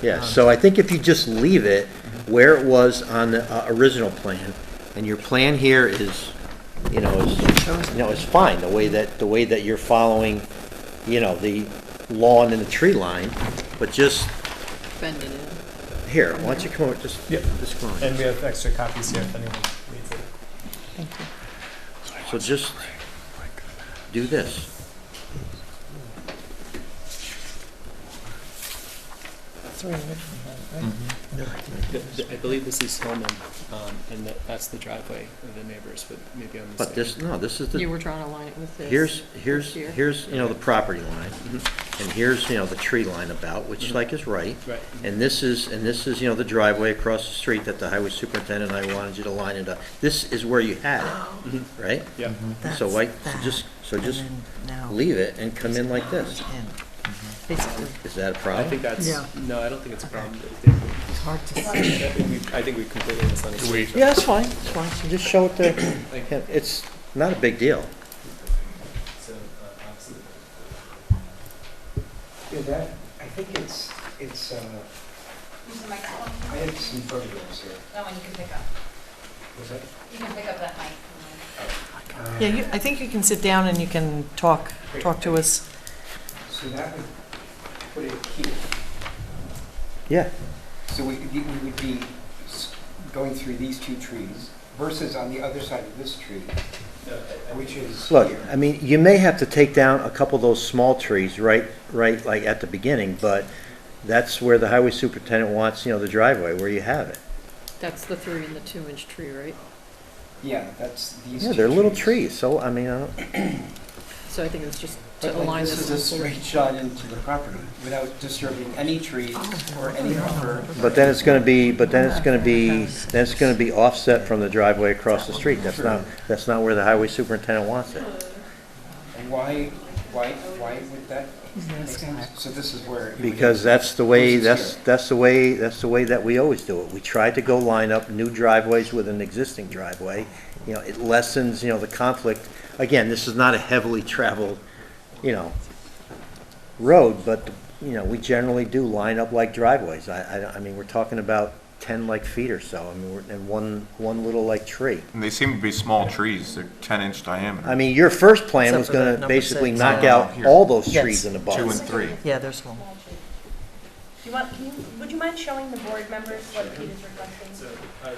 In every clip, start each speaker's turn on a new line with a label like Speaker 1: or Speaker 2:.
Speaker 1: Yeah, so I think if you just leave it where it was on the uh, original plan, and your plan here is, you know, is, you know, is fine, the way that, the way that you're following, you know, the lawn and the tree line, but just,
Speaker 2: Bending it.
Speaker 1: here, why don't you come over, just,
Speaker 3: Yep.
Speaker 1: just come on.
Speaker 3: And we have extra copies here if anyone needs it.
Speaker 1: So just do this.
Speaker 4: I believe this is Hillman, um, and that, that's the driveway of the neighbors, but maybe I'm mistaken.
Speaker 1: But this, no, this is the.
Speaker 2: You were trying to line it with this.
Speaker 1: Here's, here's,
Speaker 2: here.
Speaker 1: here's, you know, the property line, and here's, you know, the tree line about, which like is right.
Speaker 4: Mm-hmm. Right.
Speaker 1: And this is, and this is, you know, the driveway across the street that the highway superintendent and I wanted you to line it up. This is where you had it, right?
Speaker 4: Oh. Yeah,
Speaker 1: So
Speaker 5: Mm-hmm. That's
Speaker 1: like,
Speaker 5: that,
Speaker 1: just, so
Speaker 5: and
Speaker 1: just
Speaker 5: then now
Speaker 1: leave it and come in like this.
Speaker 5: in. Basically,
Speaker 1: Is that a
Speaker 4: I
Speaker 1: problem?
Speaker 4: think that's,
Speaker 5: Yeah.
Speaker 4: no, I don't think it's a problem.
Speaker 5: it's hard to see.
Speaker 4: I think we- I think we completely misunderstood. each other.
Speaker 1: Yeah, that's fine, it's fine, So just show it to,
Speaker 4: Like,
Speaker 1: him. it's not a big deal.
Speaker 4: so, uh, absolutely.
Speaker 6: Yeah, that, I think it's, it's, uh,
Speaker 7: Use the microphone.
Speaker 6: I have some photographs here.
Speaker 7: That one you can pick up.
Speaker 6: Was that?
Speaker 7: You can pick up that mic. from there.
Speaker 6: uh,
Speaker 5: Yeah, you, I think you can sit down and you can talk, talk to us.
Speaker 6: So that would put it here.
Speaker 1: Yeah,
Speaker 6: So we, we we would be s- going through these two trees versus on the other side of this tree,
Speaker 4: No, I- I-
Speaker 6: which is here.
Speaker 1: Look, I mean, you may have to take down a couple of those small trees right, right, like at the beginning, but that's where the highway superintendent wants, you know, the driveway, where you have it.
Speaker 2: That's the three and the two inch tree, right?
Speaker 6: Yeah, that's these two trees.
Speaker 1: Yeah, they're little trees, so, I mean, uh, I don't,
Speaker 2: So I think it's just to
Speaker 6: But
Speaker 2: align
Speaker 6: like,
Speaker 2: this.
Speaker 6: this is a straight shot into the property without disturbing any trees or any buffer.
Speaker 1: but then it's gonna be, but then it's gonna be, then it's gonna be offset from the driveway across the street. That's not, that's not where the highway superintendent wants it.
Speaker 6: And why, why, why would that make sense? So this is where. it would-
Speaker 1: Because that's the way,
Speaker 6: Versus
Speaker 1: that's,
Speaker 6: here.
Speaker 1: that's the way, that's the way that we always do it. We try to go line up new driveways with an existing driveway. You know, it lessens, you know, the conflict. Again, this is not a heavily traveled, you know, road, but, you know, we generally do line up like driveways. I, I, I mean, we're talking about ten like feet or so, I mean, we're- and one, one little like tree.
Speaker 8: And they seem to be small trees, they're 10-inch diameter.
Speaker 1: I mean, your first plan
Speaker 5: Except
Speaker 1: was
Speaker 5: for that
Speaker 1: gonna
Speaker 5: number
Speaker 1: basically
Speaker 5: six.
Speaker 1: knock
Speaker 8: Oh,
Speaker 1: out
Speaker 8: here.
Speaker 1: all those
Speaker 5: Yes.
Speaker 1: trees in the bog.
Speaker 8: Two and three.
Speaker 5: Yeah, there's one.
Speaker 7: Do you want, can you, would you mind showing the board members what Pete is requesting?
Speaker 4: So, uh,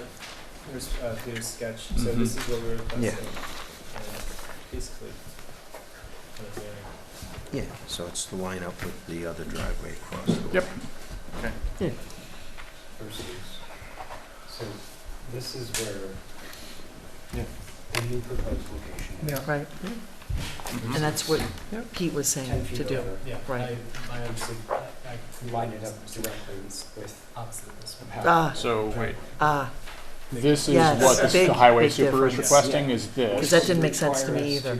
Speaker 4: here's, uh, here's sketch, so this is what we're requesting. and Basically. uh, kind of doing-
Speaker 1: Yeah, so it's the line up with the other driveway across the
Speaker 8: Yep.
Speaker 6: versus, so this is where
Speaker 8: Yeah.
Speaker 6: the new proposed location is.
Speaker 5: Right,
Speaker 1: Mm-hmm.
Speaker 5: and that's what Pete was
Speaker 6: Ten
Speaker 5: saying
Speaker 6: feet
Speaker 5: to do.
Speaker 6: over
Speaker 4: Yeah,
Speaker 5: Right.
Speaker 4: I, I understood, I
Speaker 6: to line it up directly with
Speaker 4: opposite this one.
Speaker 5: Ah,
Speaker 9: So, wait,
Speaker 5: ah,
Speaker 9: this is
Speaker 5: Yes,
Speaker 9: what this-
Speaker 5: big,
Speaker 9: the highway
Speaker 5: big
Speaker 9: super is
Speaker 5: difference.
Speaker 9: requesting, is
Speaker 5: because
Speaker 9: this,
Speaker 5: that didn't make sense to me either.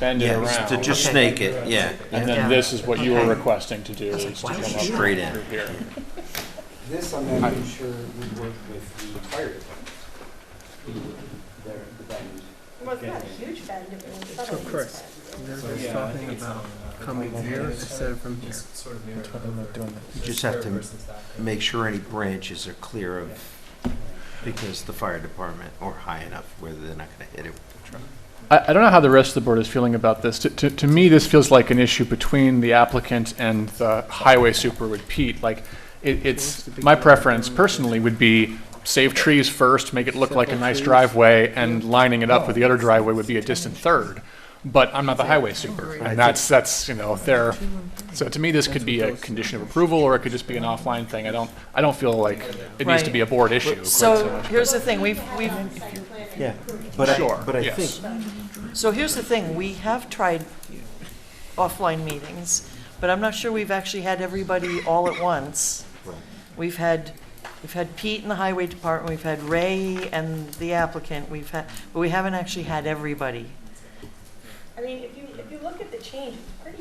Speaker 9: bend it
Speaker 1: To
Speaker 9: around,
Speaker 1: just
Speaker 5: Okay.
Speaker 1: snake it, yeah,
Speaker 9: and
Speaker 5: Yeah.
Speaker 9: then this is what you were
Speaker 5: Okay.
Speaker 9: requesting to do,
Speaker 5: I was
Speaker 9: is
Speaker 5: like,
Speaker 9: to
Speaker 5: why
Speaker 9: come
Speaker 5: would
Speaker 9: up
Speaker 5: you do
Speaker 9: through
Speaker 1: straight in.
Speaker 9: here.
Speaker 6: This I'm not even sure would work with the fire department. The- Their, the bend.
Speaker 7: Well, it's not a huge bend, it was subtle. Of
Speaker 10: course. They're just talking about coming here instead of from here.
Speaker 4: Sort of mirrored
Speaker 3: I'm not
Speaker 4: over
Speaker 3: doing that.
Speaker 4: this
Speaker 1: just have
Speaker 4: curve
Speaker 1: to
Speaker 4: versus that curve.
Speaker 1: Make sure any branches are clear of, because the fire department, or high enough where they're not gonna hit it with the truck.
Speaker 9: I, I don't know how the rest of the board is feeling about this. To, to, to me, this feels like an issue between the applicant and the highway super with Pete. Like, it, it's, my preference personally would be save trees first, make it look like a nice driveway, and lining it up with the other driveway would be a distant third. But I'm not the highway super, and that's, that's, you know, their, so to me, this could be a condition of approval, or it could just be an offline thing. I don't, I don't feel like it needs to be a board issue. quite so
Speaker 5: So
Speaker 9: much.
Speaker 5: here's the thing, we've, we've,
Speaker 1: Yeah, but I,
Speaker 9: Sure,
Speaker 1: but I
Speaker 9: yes.
Speaker 1: think,
Speaker 5: so here's the thing, we have tried offline meetings, but I'm not sure we've actually had everybody all at once. We've had, we've had Pete in the highway department, we've had Ray and the applicant, we've had, but we haven't actually had everybody.
Speaker 7: I mean, if you, if you look at the change, it's pretty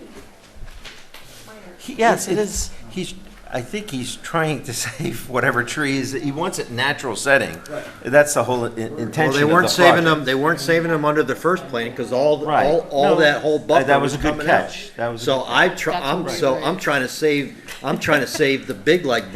Speaker 7: minor.
Speaker 1: he-
Speaker 5: Yes, it
Speaker 1: it's-
Speaker 5: is.
Speaker 1: He's, I think he's trying to save whatever trees, he wants it natural setting. That's the whole i- intention
Speaker 10: Well,
Speaker 1: of the
Speaker 10: they weren't saving
Speaker 1: project.
Speaker 10: them, they weren't saving them under the first plan, because all,
Speaker 1: Right.
Speaker 10: all, all
Speaker 1: No,
Speaker 10: that whole
Speaker 1: that-
Speaker 10: buffer
Speaker 1: that
Speaker 10: was
Speaker 1: was a good
Speaker 10: coming out.
Speaker 1: catch. That was a
Speaker 10: So I try,
Speaker 2: That's
Speaker 10: I'm,
Speaker 2: what we
Speaker 10: so
Speaker 2: were-
Speaker 10: I'm trying to save, I'm trying to save the big like